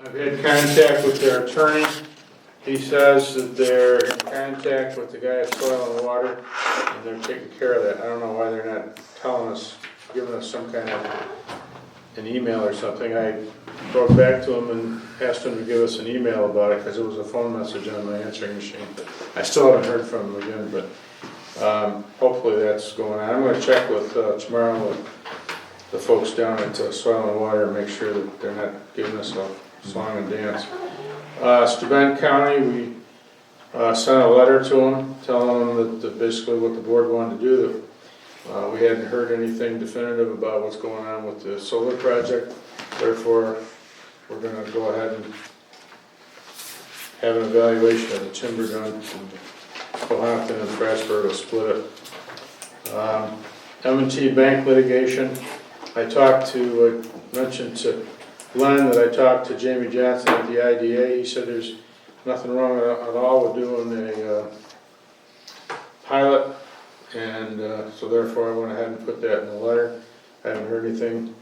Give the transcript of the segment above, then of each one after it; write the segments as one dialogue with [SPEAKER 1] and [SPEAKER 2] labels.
[SPEAKER 1] I've had contact with their attorney. He says that they're in contact with the guy at Soil and Water, and they're taking care of that. I don't know why they're not telling us, giving us some kind of an email or something. I wrote back to him and asked him to give us an email about it, because it was a phone message on my answering machine. I still haven't heard from him again, but um, hopefully that's going on. I'm gonna check with, uh, tomorrow with the folks down at uh, Soil and Water, and make sure that they're not giving us a song and dance. Uh, Staben County, we, uh, sent a letter to them, telling them that, that basically what the board wanted to do. Uh, we hadn't heard anything definitive about what's going on with the solar project, therefore, we're gonna go ahead and have an evaluation of the timber done, and Cohopton and Strasburg will split it. Um, m and T Bank litigation, I talked to, I mentioned to Glenn that I talked to Jamie Johnson at the IDA. He said there's nothing wrong at at all with doing a uh, pilot. And uh, so therefore I went ahead and put that in the letter. I haven't heard anything.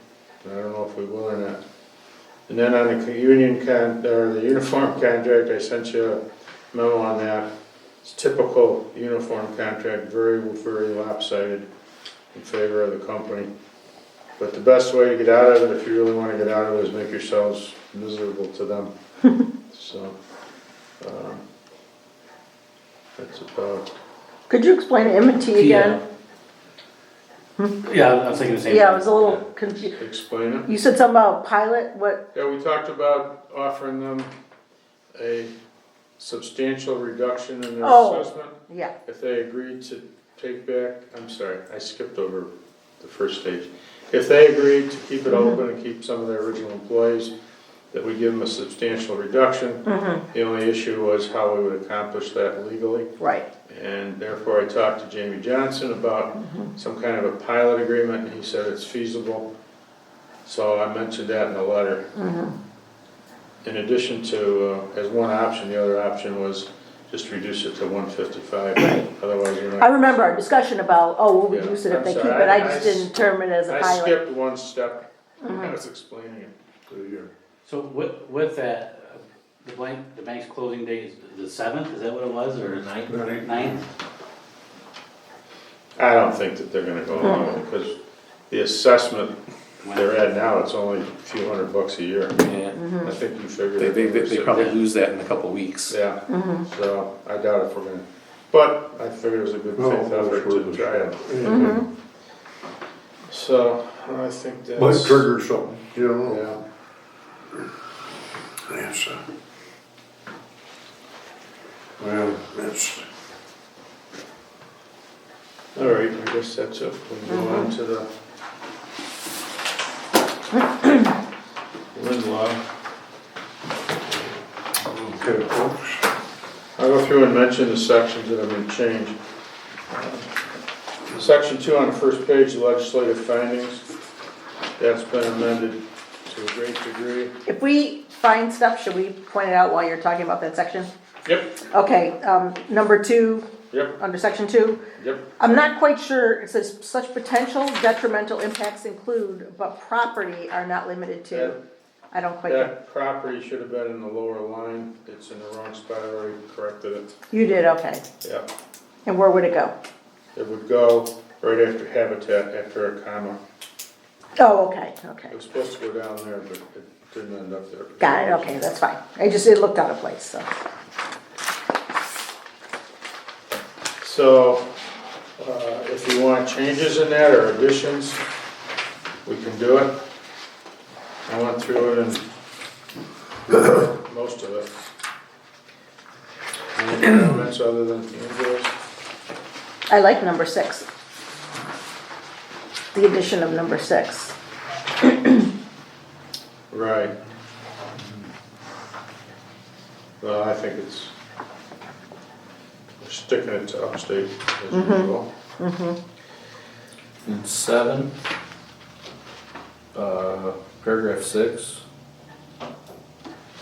[SPEAKER 1] and I don't know if we will or not. And then on the union con, or the uniform contract, I sent you a memo on that. It's typical uniform contract, very, very lopsided in favor of the company. But the best way to get out of it, if you really wanna get out of it, is make yourselves miserable to them, so, um, that's about.
[SPEAKER 2] Could you explain M and T again?
[SPEAKER 3] Yeah, I was thinking the same.
[SPEAKER 2] Yeah, I was a little confused.
[SPEAKER 1] Explain it.
[SPEAKER 2] You said something about pilot, what,
[SPEAKER 1] Yeah, we talked about offering them a substantial reduction in their
[SPEAKER 2] Oh.
[SPEAKER 1] assessment
[SPEAKER 2] yeah,
[SPEAKER 1] if they agreed to take back, I'm sorry, I skipped over the first stage. If they agreed to keep it open and keep some of their original employees, that we give them a substantial reduction. The only issue was how we would accomplish that legally.
[SPEAKER 2] right,
[SPEAKER 1] And therefore, I talked to Jamie Johnson about
[SPEAKER 2] Mm-hmm.
[SPEAKER 1] some kind of a pilot agreement, and he said it's feasible. So I mentioned that in the letter.
[SPEAKER 2] Mm-hmm.
[SPEAKER 1] In addition to, uh, as one option, the other option was just reduce it to one fifty-five, otherwise you're
[SPEAKER 2] I
[SPEAKER 1] not.
[SPEAKER 2] remember our discussion about, oh, we'll reduce it
[SPEAKER 1] Yeah,
[SPEAKER 2] if they
[SPEAKER 1] I'm
[SPEAKER 2] keep
[SPEAKER 1] sorry,
[SPEAKER 2] it, I
[SPEAKER 1] I-
[SPEAKER 2] just
[SPEAKER 1] I s-
[SPEAKER 2] didn't term it as a
[SPEAKER 1] I
[SPEAKER 2] pilot. Mm-hmm.
[SPEAKER 1] skipped one step, I was explaining it to you.
[SPEAKER 3] So with, with that, uh, the blank, the bank's closing date is the seventh, is that what it was, or ninth? Ninth?
[SPEAKER 1] I don't think that they're gonna go along with it, because the assessment they're at now, it's only a few hundred bucks a year.
[SPEAKER 4] Yeah.
[SPEAKER 2] Mm-hmm.
[SPEAKER 1] I think you figured.
[SPEAKER 4] They,
[SPEAKER 1] it
[SPEAKER 4] they, they,
[SPEAKER 1] was
[SPEAKER 4] they
[SPEAKER 1] at
[SPEAKER 4] probably lose that in a couple of weeks.
[SPEAKER 1] Yeah, so I doubt if we're gonna, but I figured it was a good
[SPEAKER 5] No,
[SPEAKER 1] faith effort
[SPEAKER 5] it's worth
[SPEAKER 1] to
[SPEAKER 5] a
[SPEAKER 1] try it.
[SPEAKER 5] It
[SPEAKER 1] So, I think that's.
[SPEAKER 5] Might trigger something, you don't know.
[SPEAKER 1] Yeah,
[SPEAKER 5] Yes. Well, that's,
[SPEAKER 1] all right, I guess that's it, we'll move on to the. Lindlaw.
[SPEAKER 5] okay, folks.
[SPEAKER 1] I'll go through and mention the sections that have been changed. Uh, Section two on the first page, legislative findings, that's been amended to a great degree.
[SPEAKER 2] If we find stuff, should we point it out while you're talking about that section?
[SPEAKER 1] Yep,
[SPEAKER 2] Okay, um, number two,
[SPEAKER 1] yep,
[SPEAKER 2] under section two,
[SPEAKER 1] yep.
[SPEAKER 2] I'm not quite sure, it says such potential detrimental impacts include, but property are not limited to. I don't quite, get-
[SPEAKER 1] That property should have been in the lower line, it's in the wrong spot, I already corrected it.
[SPEAKER 2] you did, okay,
[SPEAKER 1] Yeah.
[SPEAKER 2] and where would it go?
[SPEAKER 1] It would go right after habitat, after a comma.
[SPEAKER 2] Oh, okay, okay.
[SPEAKER 1] It was supposed to go down there, but it didn't end up there.
[SPEAKER 2] Got it, okay, that's fine. I just, it looked out of place, so.
[SPEAKER 1] So, uh, if you want changes in that or additions, we can do it. I went through it and most of it. Any comments other than Andrew's?
[SPEAKER 2] I like number six. The addition of number six.
[SPEAKER 1] Right. Well, I think it's, we're sticking it to upstate as usual.
[SPEAKER 4] In seven, uh, paragraph six,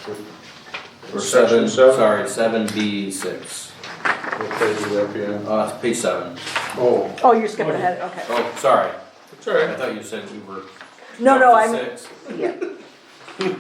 [SPEAKER 4] or
[SPEAKER 1] Section seven?
[SPEAKER 4] seven, sorry, seven B six,
[SPEAKER 1] What page would that be on?
[SPEAKER 4] uh, page seven.
[SPEAKER 5] Oh,
[SPEAKER 2] Oh, you're skipping ahead, okay.
[SPEAKER 4] Oh, sorry,
[SPEAKER 1] It's all right.
[SPEAKER 4] I thought you said we were.
[SPEAKER 2] No, no,
[SPEAKER 4] up to
[SPEAKER 2] I'm,
[SPEAKER 4] Six,
[SPEAKER 2] yeah.